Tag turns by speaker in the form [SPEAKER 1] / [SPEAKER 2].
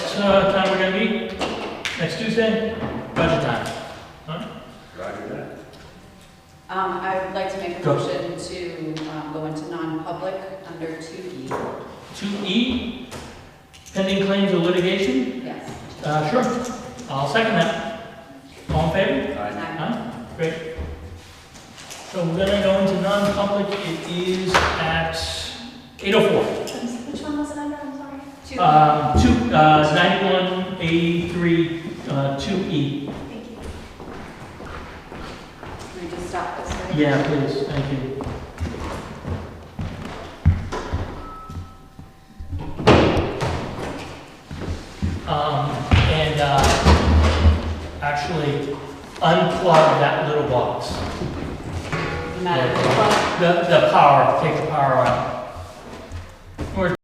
[SPEAKER 1] uh, time we're gonna meet? Next Tuesday? Budget time.
[SPEAKER 2] Roger that.
[SPEAKER 3] Um, I would like to make a
[SPEAKER 1] Go.
[SPEAKER 3] motion to, um, go into non-public under two E,
[SPEAKER 1] Two E, pending claims or litigation?
[SPEAKER 3] yes.
[SPEAKER 1] Uh, sure. I'll second that. All in favor?
[SPEAKER 2] Aye.
[SPEAKER 3] Nine.
[SPEAKER 1] Huh? Great. So we're gonna go into non-public. It is at eight oh four.
[SPEAKER 4] Which one was it under, I'm sorry?
[SPEAKER 3] Two,
[SPEAKER 1] Um, two, uh, ninety-one, eighty-three, uh, two E.
[SPEAKER 4] Thank you.
[SPEAKER 3] can we just stop this? right?
[SPEAKER 1] Yeah, please, thank you. Um, and, uh, actually unplug that little box.
[SPEAKER 3] Madam Clerk?
[SPEAKER 1] The, the power, take the power out. We're